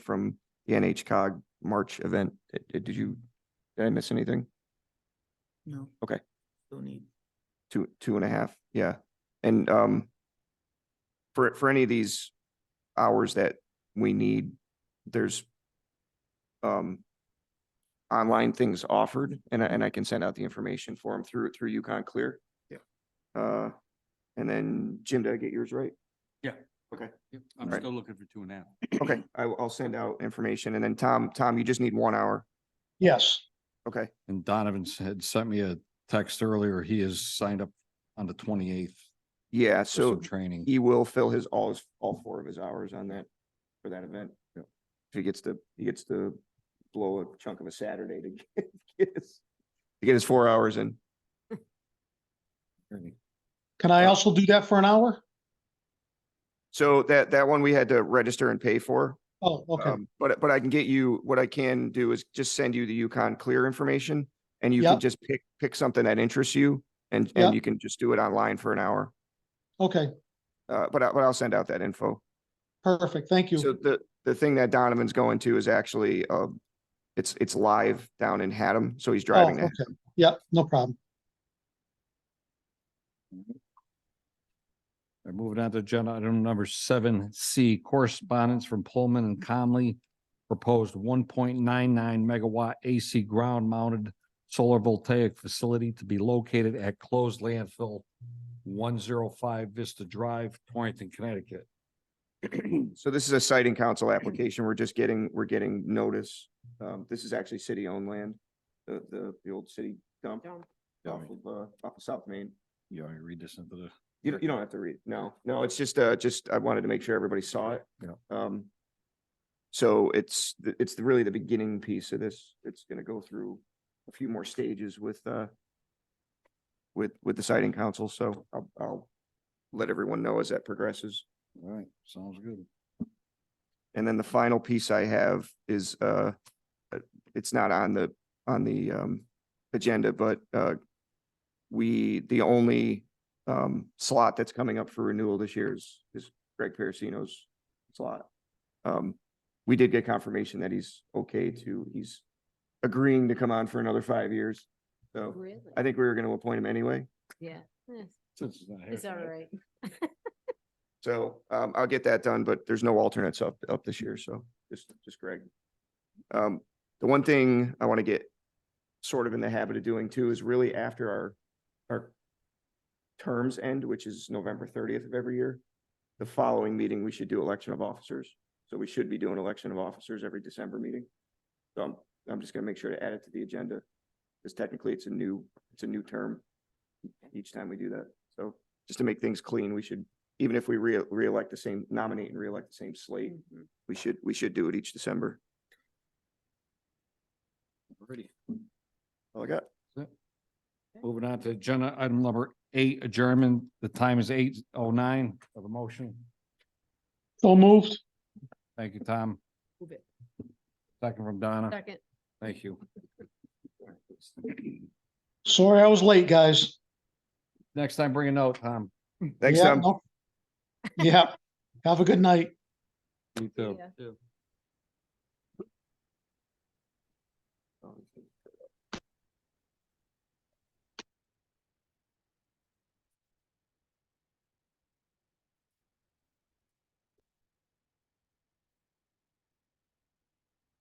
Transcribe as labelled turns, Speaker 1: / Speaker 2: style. Speaker 1: from the NHCOG March event. Uh, uh, Did you, did I miss anything?
Speaker 2: No.
Speaker 1: Okay.
Speaker 2: No need.
Speaker 1: Two, two and a half, yeah. And um, for, for any of these hours that we need, there's um, online things offered and I, and I can send out the information for them through, through Yukon Clear.
Speaker 2: Yeah.
Speaker 1: Uh, and then Jim, did I get yours right?
Speaker 3: Yep, I'm
Speaker 1: Right.
Speaker 3: still looking for two and a half.
Speaker 1: Okay, I, will- I'll send out information and then Tom, Tom, you just need one hour.
Speaker 4: Yes,
Speaker 1: Okay,
Speaker 3: And Donovan s- had sent me a text earlier. He is signed up on the twenty-eighth
Speaker 1: yeah,
Speaker 3: for
Speaker 1: so
Speaker 3: some training.
Speaker 1: he will fill his, all his, all four of his hours on that, for that event. If he gets to, he gets to blow a chunk of a Saturday to get get his, to get his four hours in.
Speaker 4: can
Speaker 1: Uh,
Speaker 4: I also do that for an hour?
Speaker 1: So that, that one we had to register and pay for.
Speaker 4: Oh, okay,
Speaker 1: Um, But, but I can get you, what I can do is just send you the Yukon Clear information and you
Speaker 4: Yeah.
Speaker 1: can just pick, pick something that interests you and,
Speaker 4: Yeah.
Speaker 1: and you can just do it online for an hour.
Speaker 4: okay,
Speaker 1: Uh, but I, but I'll send out that info.
Speaker 4: perfect, thank
Speaker 1: So
Speaker 4: you. Oh,
Speaker 1: the, the thing that Donovan's going to is actually, uh, it's, it's live down in Haddam, so he's
Speaker 4: Oh,
Speaker 1: driving
Speaker 4: okay,
Speaker 1: that.
Speaker 4: yeah, no problem.
Speaker 3: We're Moving on to agenda item number seven C, correspondence from Pullman and Comley. Proposed one point nine nine megawatt AC ground mounted solar voltaic facility to be located at closed landfill one zero five Vista Drive, Torrington, Connecticut.
Speaker 1: So this is a site and council application. We're just getting, we're getting notice. Um, this is actually city-owned land, the, the, the old city dump off of, uh, off of South Main.
Speaker 3: You already read this into the.
Speaker 1: You, don't- you don't have to read. No, no, it's just, uh, just, I wanted to make sure everybody saw it.
Speaker 3: Yeah.
Speaker 1: Um, so it's, the- it's the- really the beginning piece of this. It's gonna go through a few more stages with, uh, with, with the siting council, so I'll, I'll let everyone know as that progresses.
Speaker 3: All right, sounds good.
Speaker 1: And then the final piece I have is, uh, uh, it's not on the, on the, um, agenda, but, uh, we, the only, um, slot that's coming up for renewal this year is, is Greg Parasino's slot. Um, we did get confirmation that he's okay to, he's agreeing to come on for another five years. So
Speaker 5: Really?
Speaker 1: I think we were going to appoint him anyway.
Speaker 5: Yeah, eh,
Speaker 3: Since it's not here
Speaker 5: it's all
Speaker 3: tonight.
Speaker 5: right.
Speaker 1: So um, I'll get that done, but there's no alternates up, up this year, so just, just Greg. Um, the one thing I want to get sort of in the habit of doing too is really after our, our terms end, which is November thirtieth of every year, the following meeting, we should do election of officers. So we should be doing election of officers every December meeting. So I'm, I'm just gonna make sure to add it to the agenda, because technically it's a new, it's a new term each time we do that. So just to make things clean, we should even if we re- reelect the same, nominate and reelect the same slate, we should, we should do it each December.
Speaker 3: Already.
Speaker 1: All I got.
Speaker 3: Moving on to agenda item number eight, adjournment. The time is eight oh nine of the motion.
Speaker 4: So moved,
Speaker 3: Thank you, Tom.
Speaker 5: Move it.
Speaker 3: Second from Donna.
Speaker 5: Second,
Speaker 3: Thank you.
Speaker 4: sorry I was late, guys.
Speaker 3: Next time, bring a note, Tom.
Speaker 1: Thanks,
Speaker 4: Yeah,
Speaker 1: Tom.
Speaker 4: no- Yeah, have a good night.
Speaker 3: You too.
Speaker 5: Yeah.